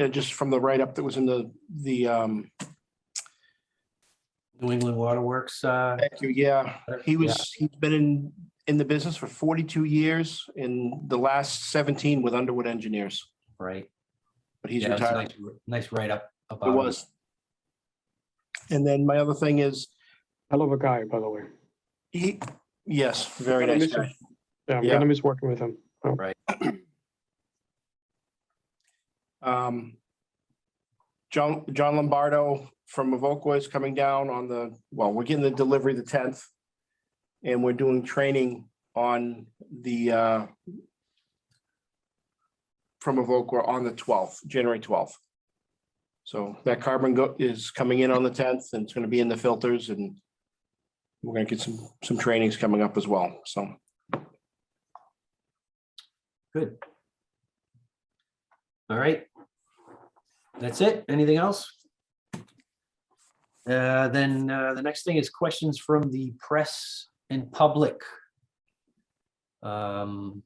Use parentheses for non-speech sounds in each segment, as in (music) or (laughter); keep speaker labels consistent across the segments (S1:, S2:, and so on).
S1: uh, just from the write-up that was in the, the, um,
S2: New England Waterworks. uh,
S1: thank you, yeah. He
S2: yeah.
S1: was, he's been in, in the business for forty-two years, in the last seventeen with Underwood Engineers,
S2: Right.
S1: but he's
S2: Yeah, it's a
S1: retired.
S2: nice- Nice write-up about.
S1: It
S2: him.
S1: was. And then my other thing is,
S3: Hell of a guy, by the way.
S1: he, yes, very
S3: Gonna
S1: nice
S3: miss him.
S1: guy.
S3: Yeah, I'm
S1: Yeah.
S3: gonna miss working with him.
S1: Um, John, John Lombardo from Evoqua is coming down on the, well, we're getting the delivery the tenth. And we're doing training on the, uh, from Evoqua on the twelfth, January twelfth. So that carbon go, is coming in on the tenth and it's gonna be in the filters and we're gonna get some, some trainings coming up as well, so.
S2: Good. All right. That's it. Anything else? Uh, Then uh, the next thing is questions from the press and public. Um,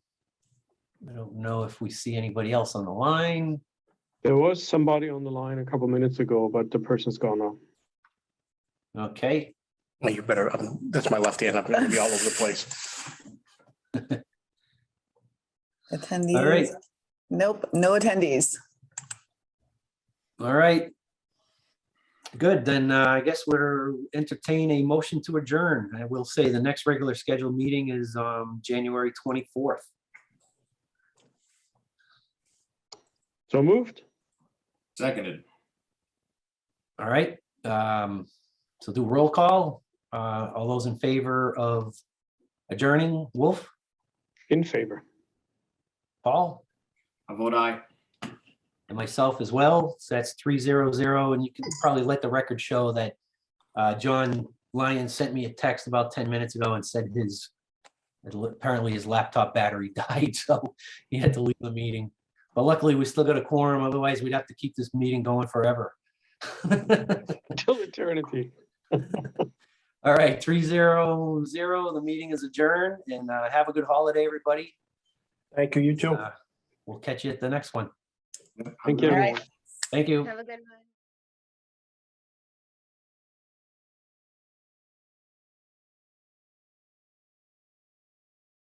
S2: I don't know if we see anybody else on the line.
S3: There was somebody on the line a couple minutes ago, but the person's gone now.
S2: Okay,
S1: Well, You better, um, that's my left hand, I'm gonna be all over the place.
S2: right.
S4: Attendees? Nope, no attendees.
S2: all right. Good, then uh, I guess we're entertain a motion to adjourn. I will say the next regular scheduled meeting is um, January 24th.
S3: So moved?
S5: Seconded.
S2: All right, um, so do roll call. Uh, all those in favor of adjourning, Wolf,
S3: In favor. (laughs)
S2: Paul,
S5: I vote aye.
S2: and myself as well. So that's three zero zero, and you can probably let the record show that uh, John Lyon sent me a text about ten minutes ago and said his apparently his laptop battery (laughs) died, so he had to leave the meeting. But luckily, we still got a quorum, otherwise we'd have to keep this meeting going forever. (laughs)
S3: Till eternity.
S2: All right, three zero zero, the meeting is adjourned and uh, have a good holiday, everybody.
S1: Thank you, you too.
S2: Uh, We'll catch you at the next one.
S3: Thank you,
S4: All
S3: everyone.
S4: right.
S2: Thank you.
S6: Have a good one.